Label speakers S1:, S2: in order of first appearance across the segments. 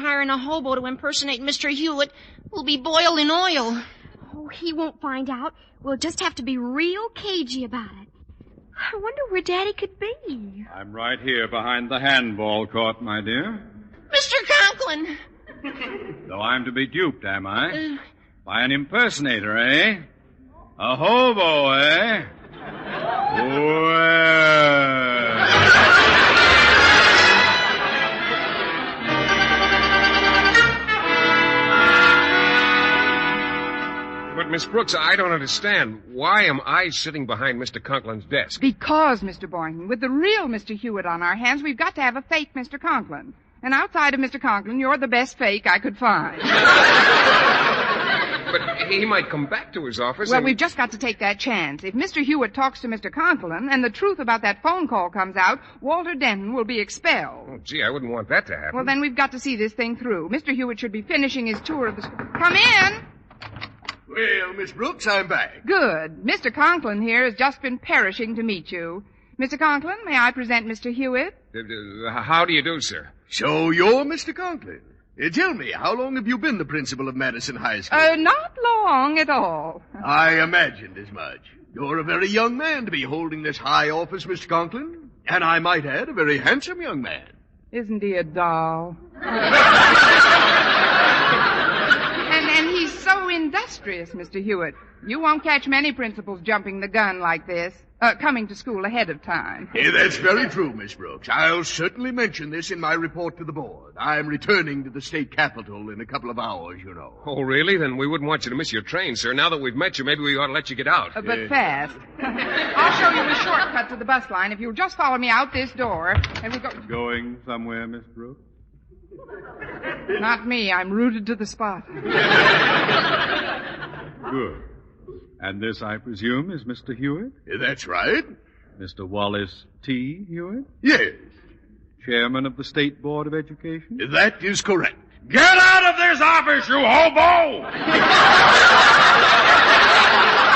S1: hiring a hobo to impersonate Mr. Hewitt will be boiled in oil.
S2: Oh, he won't find out. We'll just have to be real cagey about it. I wonder where Daddy could be.
S3: I'm right here behind the handball court, my dear.
S1: Mr. Conklin!
S3: Though I'm to be duped, am
S1: Uh,
S3: I? By an impersonator, eh? A hobo, eh? Well.
S4: But, Miss Brooks, I don't understand. Why am I sitting behind Mr. Conklin's desk?
S5: Because, Mr. Boynton, with the real Mr. Hewitt on our hands, we've got to have a fake Mr. Conklin. And outside of Mr. Conklin, you're the best fake I could find.
S4: But he might come back to his office.
S5: Well,
S4: and-
S5: we've just got to take that chance. If Mr. Hewitt talks to Mr. Conklin and the truth about that phone call comes out, Walter Denton will be expelled.
S4: Oh, gee, I wouldn't want that to happen.
S5: Well, then we've got to see this thing through. Mr. Hewitt should be finishing his tour of the school. Come in!
S6: Well, Miss Brooks, I'm back.
S5: Good. Mr. Conklin here has just been perishing to meet you. Mr. Conklin, may I present Mr. Hewitt?
S4: Uh, uh, How do you do, sir?
S6: So you're Mr. Conklin. Uh, tell me, how long have you been the principal of Madison High School?
S5: Uh, not long at all.
S6: I imagined as much. You're a very young man to be holding this high office, Mr. Conklin. And I might add, a very handsome young man.
S5: Isn't he a doll? and, and he's so industrious, Mr. Hewitt. You won't catch many principals jumping the gun like this, uh, coming to school ahead of time.
S6: Eh, that's very true, Miss Brooks. I'll certainly mention this in my report to the board. I'm returning to the state capitol in a couple of hours, you know.
S4: Oh, really? Then we wouldn't want you to miss your train, sir. Now that we've met you, maybe we ought to let you get out.
S5: Uh, but fast. I'll show you the shortcut to the bus line if you'll just follow me out this door. And we go.
S3: Going somewhere, Miss Brooks?
S5: Not me. I'm rooted to the spot.
S3: Good. And this, I presume, is Mr. Hewitt?
S6: Eh, that's right.
S3: Mr. Wallace T. Hewitt?
S6: Yes,
S3: Chairman of the State Board of Education?
S6: that is correct.
S4: Get out of this office, you hobo!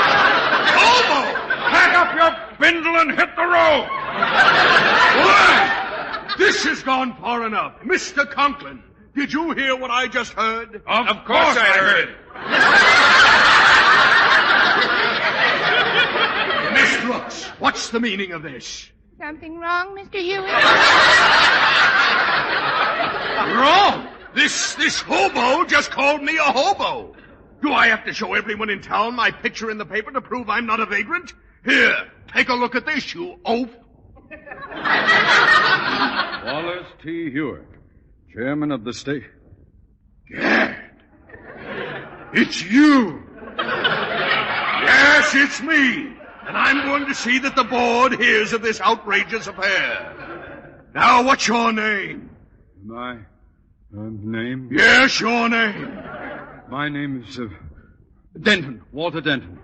S6: Hobo!
S4: Pack up your bindle and hit the road!
S6: Why? This has gone far enough. Mr. Conklin, did you hear what I just heard?
S4: Of, course, I heard it.
S6: Miss Brooks, what's the meaning of this?
S5: Something wrong, Mr. Hewitt?
S6: Wrong! This, this hobo just called me a hobo. Do I have to show everyone in town my picture in the paper to prove I'm not a vagrant? Here, take a look at this, you oaf.
S3: Wallace T. Hewitt, Chairman of the State.
S6: It's you. yes, it's me. And I'm going to see that the board hears of this outrageous affair. Now, what's your name?
S3: My um, name?
S6: Yes, your name.
S3: My name is uh, Denton, Walter Denton.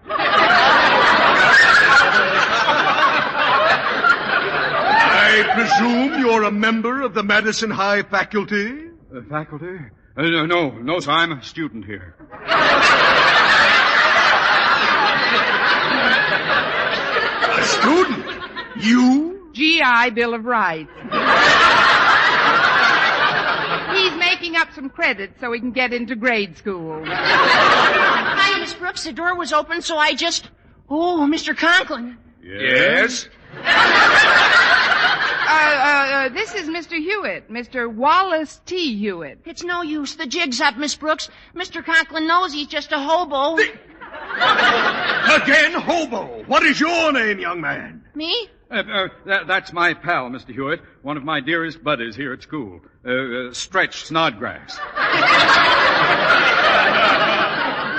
S6: I presume you're a member of the Madison High faculty?
S3: Uh, faculty? Uh, no, no, no, sir, I'm a student here.
S6: A student? You?
S5: GI Bill of Rights. He's making up some credits so he can get into grade school.
S1: Hi, Miss Brooks. The door was open, so I just. Oh, Mr. Conklin.
S4: Yes?
S5: Uh, uh, uh, this is Mr. Hewitt, Mr. Wallace T. Hewitt.
S1: It's no use. The jig's up, Miss Brooks. Mr. Conklin knows he's just a hobo.
S6: Again, hobo. What is your name, young man?
S1: Me?
S3: Uh, uh, that, that's my pal, Mr. Hewitt, one of my dearest buddies here at school. Uh, uh, Stretch Snodgrass.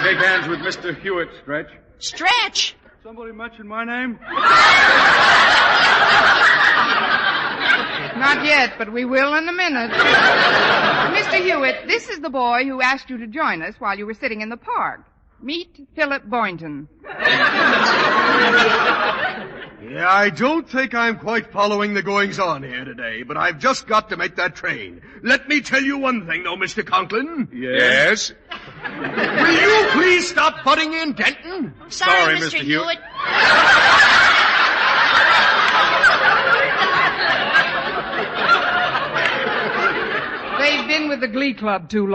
S3: Shake hands with Mr. Hewitt, Stretch.
S1: Stretch.
S3: Somebody mention my name?
S5: Not yet, but we will in a minute. Mr. Hewitt, this is the boy who asked you to join us while you were sitting in the park. Meet Philip Boynton.
S6: Yeah, I don't think I'm quite following the goings on here today, but I've just got to make that train. Let me tell you one thing, though, Mr. Conklin.
S4: Yes?
S6: Will you please stop butting in, Denton?
S1: Sorry,
S3: Sorry, Mr. Hewitt.
S1: Hewitt.
S5: They've been with the glee club too long.